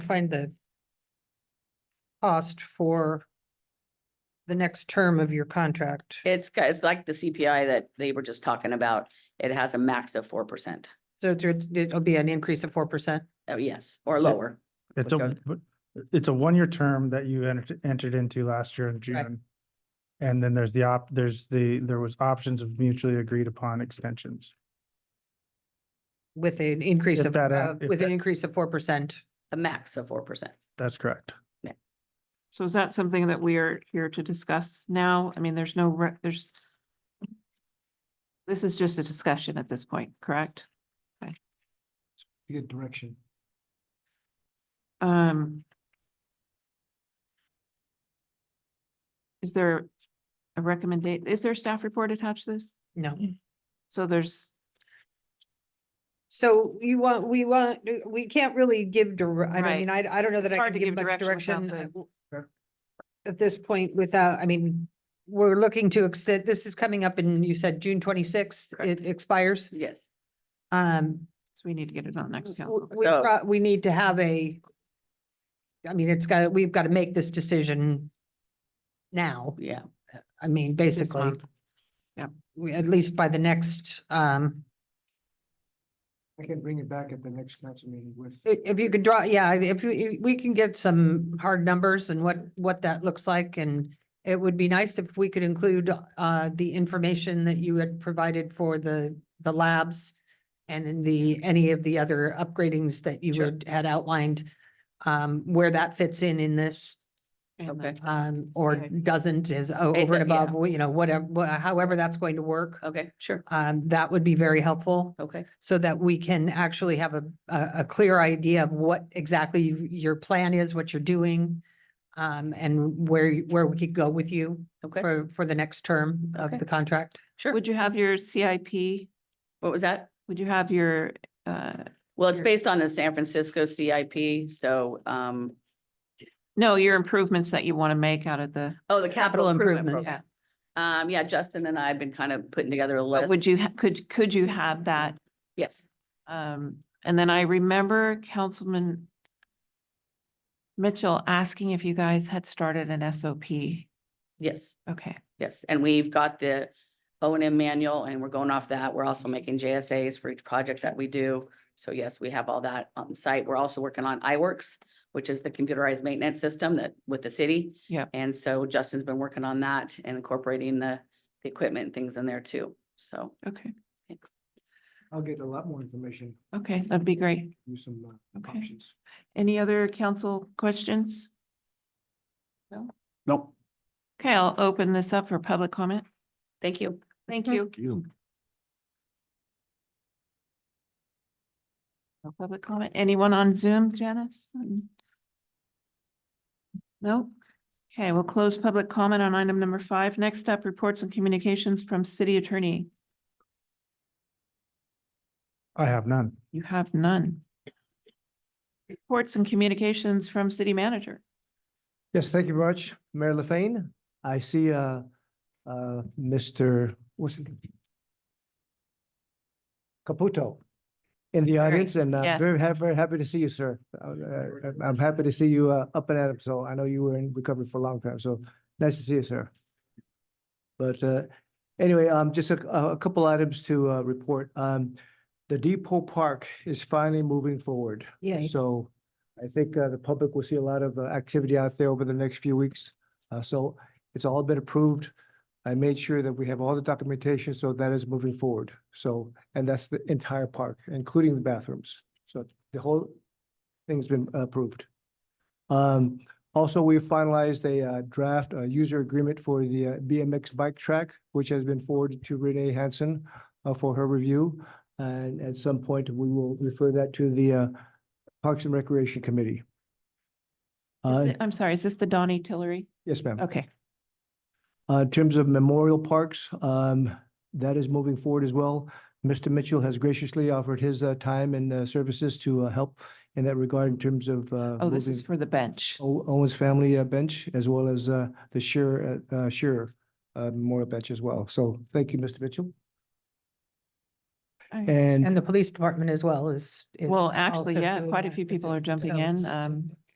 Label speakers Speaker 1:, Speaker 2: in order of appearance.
Speaker 1: find the cost for the next term of your contract.
Speaker 2: It's, ki- it's like the CPI that they were just talking about. It has a max of four percent.
Speaker 1: So there- it'll be an increase of four percent.
Speaker 2: Oh, yes, or lower.
Speaker 3: It's a,
Speaker 2: Okay.
Speaker 3: but it's a one-year term that you entered, entered into last year in June. And then there's the op, there's the, there was options of mutually agreed upon extensions.
Speaker 1: With an increase
Speaker 3: If
Speaker 1: of,
Speaker 3: that, uh,
Speaker 1: uh,
Speaker 3: if
Speaker 1: with an
Speaker 3: that-
Speaker 1: increase of four percent.
Speaker 2: A max of four percent.
Speaker 3: That's correct.
Speaker 4: So is that something that we are here to discuss now? I mean, there's no, re- there's. This is just a discussion at this point, correct?
Speaker 5: Good direction.
Speaker 4: Um. Is there a recommendation? is there a staff report attached to this?
Speaker 1: No.
Speaker 4: So there's,
Speaker 1: So you want, we want, we can't really give, dir- I don't- I
Speaker 4: Right.
Speaker 1: mean, I, I don't know that
Speaker 4: It's
Speaker 1: I
Speaker 4: hard
Speaker 1: can
Speaker 4: to
Speaker 1: give
Speaker 4: give
Speaker 1: much direction.
Speaker 4: direction without
Speaker 1: uh,
Speaker 4: the-
Speaker 1: w-
Speaker 3: Sure.
Speaker 1: At this point without, I mean, we're looking to extend, this is coming up in, you said June twenty-sixth,
Speaker 2: Correct.
Speaker 1: it expires.
Speaker 2: Yes.
Speaker 1: Um,
Speaker 4: so we need to get it on next
Speaker 1: w-
Speaker 4: council.
Speaker 1: we,
Speaker 2: So-
Speaker 1: pro- we need to have a, I mean, it's got, we've got to make this decision now,
Speaker 2: Yeah,
Speaker 1: I mean,
Speaker 4: This
Speaker 1: basically.
Speaker 4: month. Yeah.
Speaker 1: We, at least by the next, um,
Speaker 5: I can bring it back at the next council meeting with.
Speaker 1: If, if you could draw, yeah, if you, if we can get some hard numbers and what, what that looks like and it would be nice if we could include, uh, the information that you had provided for the, the labs and in the, any of the other upgradings that you
Speaker 2: Sure.
Speaker 1: had, had outlined, um, where that fits in in this,
Speaker 4: And
Speaker 2: Okay.
Speaker 4: then-
Speaker 1: um, or
Speaker 4: Okay.
Speaker 1: doesn't is o-
Speaker 2: It-
Speaker 1: over and
Speaker 2: yeah.
Speaker 1: above, you know, whatever, wha- however that's going to work.
Speaker 2: okay, sure,
Speaker 1: Um, that would be very helpful
Speaker 2: okay,
Speaker 1: so that we can actually have a, a, a clear idea of what exactly you- your plan is, what you're doing, um, and where, you- where we could go with you
Speaker 2: okay,
Speaker 1: for, for the next term of
Speaker 2: Okay.
Speaker 1: the contract.
Speaker 2: sure.
Speaker 4: Would you have your CIP?
Speaker 2: What was that?
Speaker 4: Would you have your, uh,
Speaker 2: Well, it's
Speaker 4: Your-
Speaker 2: based on the San Francisco CIP, so, um,
Speaker 4: no, your improvements that you want to make out of the,
Speaker 2: oh, the capital
Speaker 1: Capital
Speaker 2: improvement
Speaker 1: improvements.
Speaker 2: program. Um, yeah, Justin and I have been kind of putting together a list.
Speaker 4: would you, ha- could, could you have that
Speaker 2: Yes,
Speaker 4: Um, and then I remember Councilman Mitchell asking if you guys had started an SOP.
Speaker 2: yes,
Speaker 4: Okay,
Speaker 2: yes. And we've got the O and M manual and we're going off that. We're also making JSAs for each project that we do. So yes, we have all that on site. We're also working on iWorks, which is the computerized maintenance system that with the city.
Speaker 4: Yep.
Speaker 2: And so Justin's been working on that and incorporating the, the equipment and things in there too. So,
Speaker 4: okay,
Speaker 5: I'll get a lot more information,
Speaker 4: okay, that'd be great.
Speaker 5: do some uh,
Speaker 4: Okay.
Speaker 5: options.
Speaker 4: Any other council questions?
Speaker 5: No.
Speaker 4: Okay, I'll open this up for public comment.
Speaker 2: thank you.
Speaker 4: Thank you.
Speaker 5: You.
Speaker 4: No public comment. Anyone on Zoom, Janice? Um, No? Okay, we'll close public comment on item number five. Next up, reports and communications from city attorney.
Speaker 3: I have none.
Speaker 4: You have none. Reports and communications from city manager.
Speaker 5: Yes, thank you very much, Mayor LaFane. I see, uh, uh, Mr. what's his name? Caputo in the audience and uh,
Speaker 4: yeah.
Speaker 5: very, ha- very happy to see you, sir. Uh, uh, I'm happy to see you, uh, up and at 'em. So I know you were in recovery for a long time. So nice to see you, sir. But, uh, anyway, um, just a, a couple items to, uh, report. Um, the Depot Park is finally moving forward.
Speaker 1: Yeah.
Speaker 5: So I think uh, the public will see a lot of uh, activity out there over the next few weeks. Uh, So it's all been approved. I made sure that we have all the documentation, so that is moving forward. So, and that's the entire park, including the bathrooms. So the whole thing's been approved. Um, Also, we finalized a uh, draft uh, user agreement for the uh, BMX bike track, which has been forwarded to Renee Hansen uh, for her review. And at some point, we will refer that to the uh, Parks and Recreation Committee.
Speaker 4: Is
Speaker 5: Uh,
Speaker 4: it- I'm sorry, is this the Donnie Tillery?
Speaker 5: yes, ma'am.
Speaker 4: Okay,
Speaker 5: Uh, in terms of memorial parks, um, that is moving forward as well. Mr. Mitchell has graciously offered his, uh, time and, uh, services to, uh, help in that regard in terms of, uh,
Speaker 4: oh, this is
Speaker 5: moving Oh.
Speaker 4: for the bench.
Speaker 5: O- Owens Family uh, Bench as well as, uh, the Shearer, uh, uh, Shearer, uh, Memorial Bench as well. So thank you, Mr. Mitchell.
Speaker 4: Okay.
Speaker 5: And
Speaker 1: And the police department as well is. is
Speaker 4: Well, actually,
Speaker 1: also
Speaker 4: yeah,
Speaker 1: doing
Speaker 4: quite a
Speaker 1: that
Speaker 4: few
Speaker 1: with
Speaker 4: people
Speaker 1: it.
Speaker 4: are jumping
Speaker 1: So
Speaker 4: in.
Speaker 1: it's-
Speaker 4: Um,